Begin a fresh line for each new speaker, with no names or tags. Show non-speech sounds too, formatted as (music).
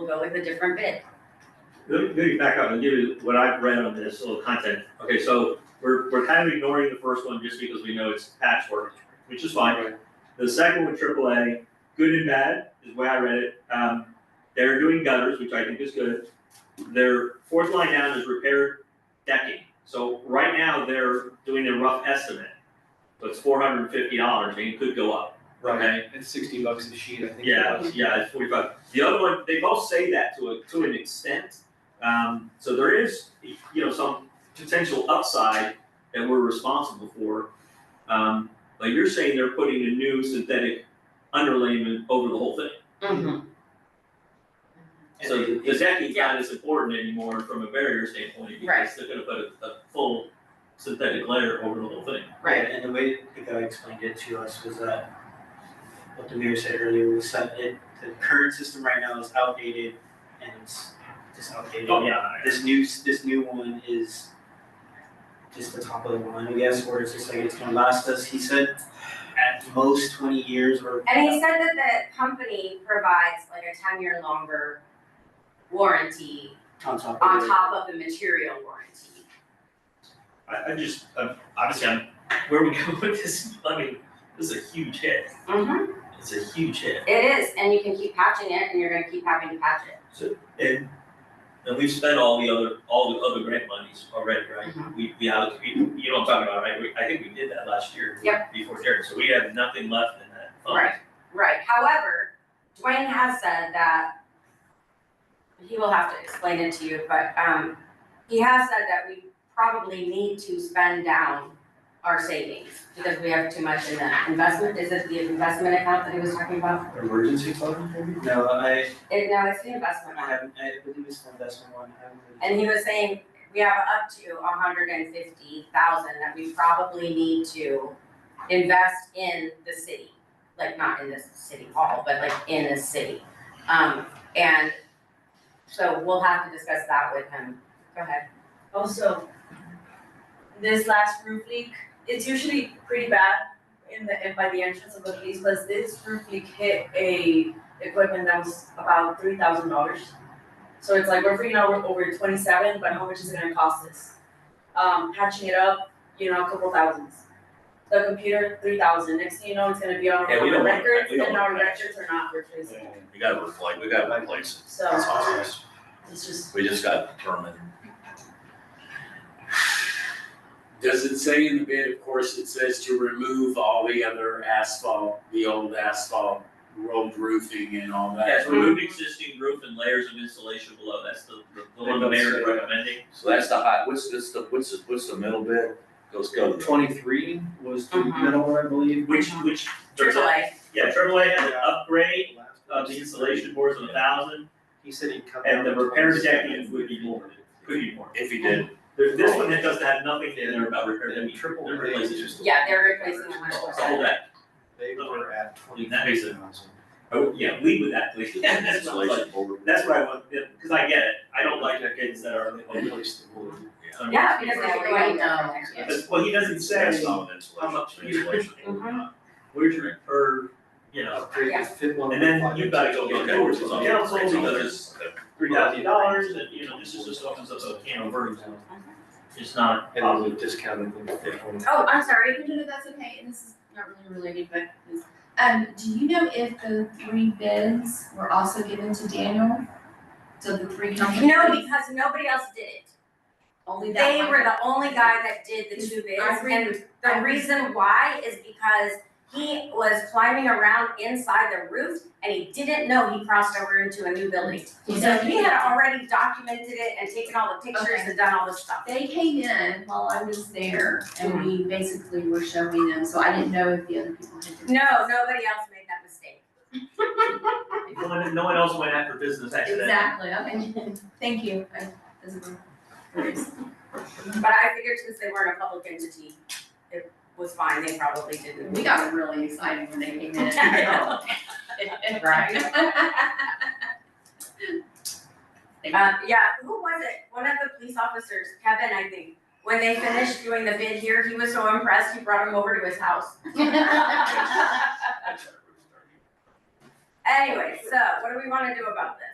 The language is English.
go with a different bid.
Let me, let me back up and give you what I've read on this little content. Okay, so we're, we're kind of ignoring the first one just because we know it's patchwork, which is fine. The second one, AAA, good and bad is the way I read it. Um, they're doing gutters, which I think is good. Their fourth line down is repair decking. So right now, they're doing a rough estimate. So it's four hundred and fifty dollars, and it could go up, okay?
It's sixty bucks a sheet, I think.
Yeah, yeah, it's forty-five. The other one, they both say that to a, to an extent. Um, so there is, you know, some potential upside that we're responsible for. Um, but you're saying they're putting a new synthetic underlayment over the whole thing. So
And it-
the decking's not as important anymore from a barrier standpoint
Right.
because they're gonna put a, a full synthetic layer over the whole thing.
Right.
And the way the guy explained it to us was that what the mayor said earlier was that it, the current system right now is outdated and it's just outdated.
Oh, yeah.
This new, s- this new one is just the top of the line, I guess, where it's just like it's gonna last us, he said, at most twenty years or.
And he said that the company provides like a ten-year longer warranty
On top of
on
it.
top of the material warranty.
I, I just, I'm, obviously, I'm, where we go (laughs) with this, I mean, this is a huge hit.
Mm-hmm.
It's a huge hit.
It is, and you can keep patching it, and you're gonna keep having to patch it.
And. And we've spent all the other, all the other grant monies already, right?
Mm-hmm.
We, we alloc- we you know what I'm talking about, right? We, I think we did that last year.
Yep.
Before Jared, so we have nothing left in that fund.
Right. Right, however, Dwayne has said that he will have to explain it to you, but um he has said that we probably need to spend down our savings because we have too much in the investment, is it the investment account that he was talking about?
Emergency fund, maybe?
No, I,
It, no, it's the investment
I
one,
haven't, I believe it's the investment one, I haven't. really-
and he was saying we have up to a hundred and fifty thousand that we probably need to invest in the city, like not in this city hall, but like in this city. Um, and so we'll have to discuss that with him. Go ahead.
Also, this last roof leak, it's usually pretty bad in the, in by the entrance of the police, but this roof leak hit a equipment that was about three thousand dollars. So it's like, we're freaking out we're over twenty-seven, but how much is it gonna cost us? Um, patching it up, you know, a couple thousands. The computer, three thousand, next thing you know, it's gonna be on
Yeah, we
our
don't want-
records,
we don't
and
want
our
that.
records are not replaced,
We gotta reflect, we gotta replace
so
it, it's obvious,
it's just.
we just gotta determine.
Does it say in the bid, of course, it says to remove all the other
Oh,
asphalt, the old asphalt, road roofing and all that?
Yes, remove existing roof and layers of insulation below, that's the, the- the one the mayor is recommending.
So that's the high, what's this, the, what's the, what's the middle bit? Let's go.
Twenty-three was the
Mhm.
middle one, I believe.
Which, which, there's
Triple
a,
A.
yeah, triple A has an upgrade of the
He
insulation boards of a thousand
said he'd cut down
and the
to
repair
27.
decking would be more, could be more.
If you did,
There's this one that doesn't have nothing in there about repair,
And
decking.
triple
they're
A
replacing
is just.
Yeah, they're replacing the hundred
the whole
percent.
deck.
They were at twenty
That makes
thousand.
sense. Oh, yeah, lead with that, please. That's what I like.
insulation over.
That's what I want, because I get it, I don't like the kids that are.
Replaced the wood.
Yeah, because they're going down.
Because, well, he doesn't
That's
say,
not an
I'm up
insulation, insulation.
where's your, or, you know,
Upgrade the Uh, fit one.
and then
with
you've gotta go get doors
It's
from
on-
council,
it's on-
because it's three thousand dollars, and, you know, this is just opens up a can of worms. It's not
And then
positive.
we discounted them for twenty.
Oh, I'm sorry, I know that's okay, and this is not really related, but please. Um, do you know if the three bids were also given to Daniel? So the three companies?
No, because nobody else did it.
Only that
They
one.
were the only guy that did the two bids,
I agree
and
with- I
the
agree.
reason why is because he was climbing around inside the roof, and he didn't know he crossed over into a new building. So he had already documented it and taken all the pictures
Okay.
and done all the stuff.
They came in while I was there and we basically were showing them, so I didn't know if the other people had.
No, nobody else made that mistake.
No one, no one else went after business accident.
Exactly, okay, (laughs) thank you, I, this is.
But I figured since they weren't a public entity, it was fine, they probably didn't.
We got really excited when they
(laughs)
came in. (laughs)
(laughs)
(laughs)
Uh, yeah, who was it? One of the police officers, Kevin, I think, when they finished doing the bid here, he was so impressed, he brought him over to his (laughs) house. Anyway, so what do we wanna do about this?